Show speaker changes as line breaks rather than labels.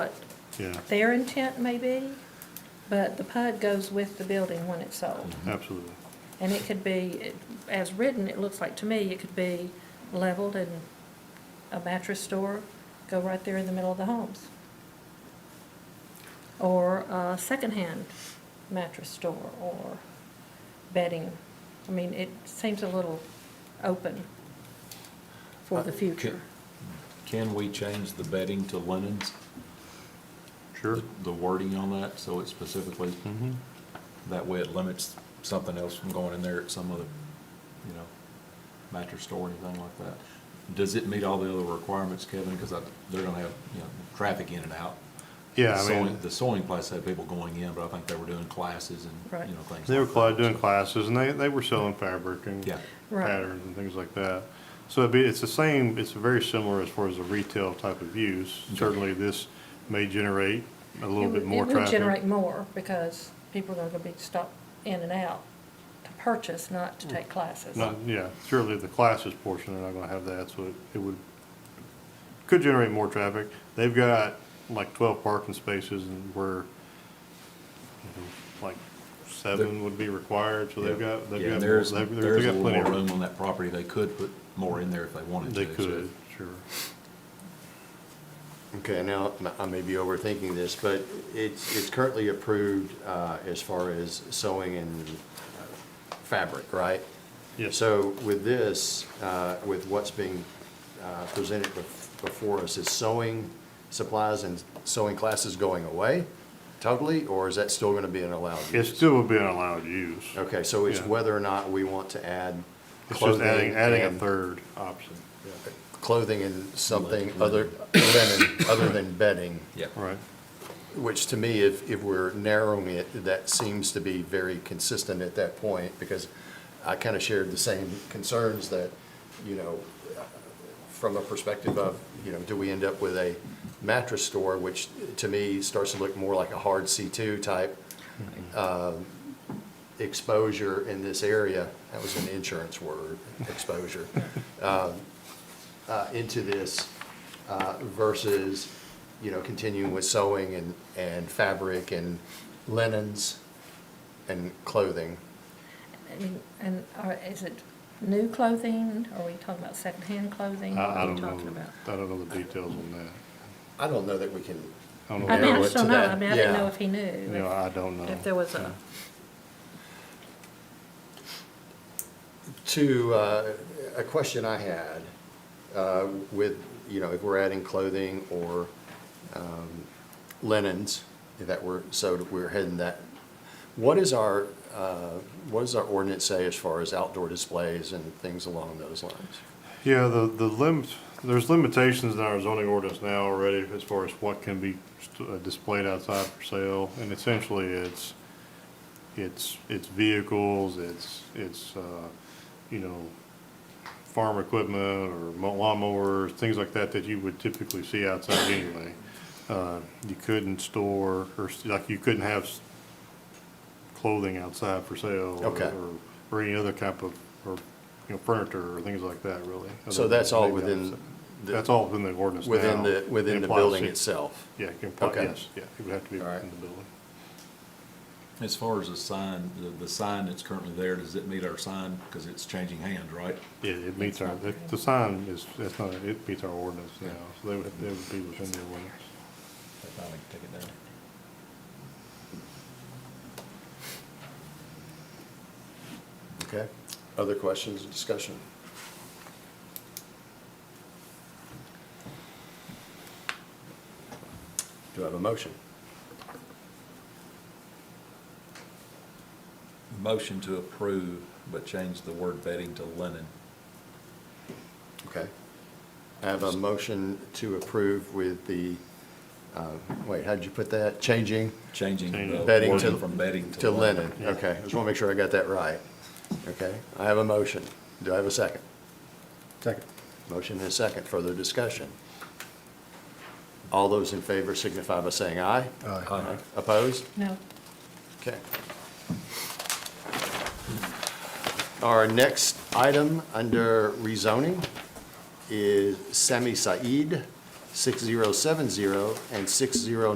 what
Yeah,
their intent may be, but the PUD goes with the building when it's sold.
Mm-hmm.
absolutely.
And it could be, as written, it looks like to me, it could be leveled and a mattress store go right there in the middle of the homes. Or a secondhand mattress store or bedding. I mean, it seems a little open for the future.
Can we change the bedding to linens?
Sure.
The mm-hmm. wording on that, so it specifically,
Mhm.
that way it limits something else from going in there at some other, you know, mattress store or anything like that. Does it meet all the other requirements, Kevin? Because they're gonna have, you know, traffic in and out.
Yeah, I
Sewing-
mean,
The sewing place had people going in, but I think they were doing classes
Right.
and, you know, things.
they were
like that.
cla- doing classes and they, they were selling fabric and
Yeah.
Right.
patterns and things like that. So it'd be, it's the same, it's very similar as far as the retail type of use.
Okay.
Certainly this may generate a
It
little
would-
bit more
It would generate
traffic.
more because people are going to be stopped in and out to purchase, not to take classes.
Not- Yeah, certainly the classes portion, they're not gonna have that, so it- it would, could generate more traffic. They've got like twelve parking spaces and where, you know, like seven would be required, so they've
Yeah.
got, they've
Yeah,
got, more-
and there's,
they've
there's
they've
a
got
little
plenty
more
of room.
room on that property. They could put more in there if they wanted
They
to. so-
could, sure.
Okay, now, m- I may be overthinking this, but it's, it's currently approved uh, as far as sewing and uh, fabric, right?
Yes.
So with this, uh, with what's being uh, presented bef- before us, is sewing supplies and sewing classes going away totally? Or is that still going to be an allowed
It
use?
still would be an allowed use.
Okay, so it's
Yeah.
whether or not we want to add
It's just adding,
clothing
adding a
and-
third option.
Clothing and something other, linen, other than bedding.
Yeah.
Right.
Which to me, if, if we're narrowing it, that seems to be very consistent at that point, because I kind of shared the same concerns that, you know, from a perspective of, you know, do we end up with a mattress store, which to me starts to look more like a hard C2 type um, exposure in this area, that was an insurance word, exposure, um, uh, into this uh, versus, you know, continuing with sewing and, and fabric and linens and clothing.
I mean, And are- is it new clothing? Are we talking about secondhand clothing? What
I, I
are we
don't know,
talking about?
I don't know the details on that.
I don't know that we can,
I
I don't
mean,
know,
I
narrow
what-
just
it to
don't know.
that,
I mean, I didn't
yeah.
know if he
you
knew,
know, I don't know.
if- if there was a,
to, uh, a question I had uh, with, you know, if we're adding clothing or um, linens, if that were, so that we're heading that, what is our, uh, what does our ordinance say as far as outdoor displays and things along those lines?
Yeah, the, the limit, there's limitations in our zoning ordinance now already as far as what can be st- uh, displayed outside for sale. And essentially, it's, it's, it's vehicles, it's, it's, uh, you know, farm equipment or mo- lawnmowers, things like that that you would typically see outside anyway. Uh, You couldn't store, or s- like you couldn't have s- clothing outside for sale. or-
Okay.
or- Or any other type of, or, you know, furniture or things like that, really.
So that's all
Maybe
within
outside.
the-
That's all within the ordinance now.
Within the,
It
within the
applies
building
to-
itself?
Yeah, it can apply,
Okay.
yes, yeah, it would have to be
All right.
within the building.
As far as the sign, the, the sign that's currently there, does it meet our sign? Because it's changing hands, right?
Yeah, it meets our, the the sign is, that's not, it meets our ordinance now, so they would, they would be within the ordinance.
They finally took it down.
Okay. Other questions, discussion? Do I have a motion?
Motion to approve, but change the word bedding to linen.
Okay. I have a motion to approve with the, uh, wait, how'd you put that? Changing
Changing the
Bedding to-
wording from bedding
to
to linen.
linen. Okay, I just want to make sure I got that right. Okay, I have a motion. Do I have a second? Second. Motion and a second. Further discussion? All those in favor signify by saying aye.
Aye.
Opposed?
no,
Okay. Our next item under rezoning is Sami Said 6070 and 60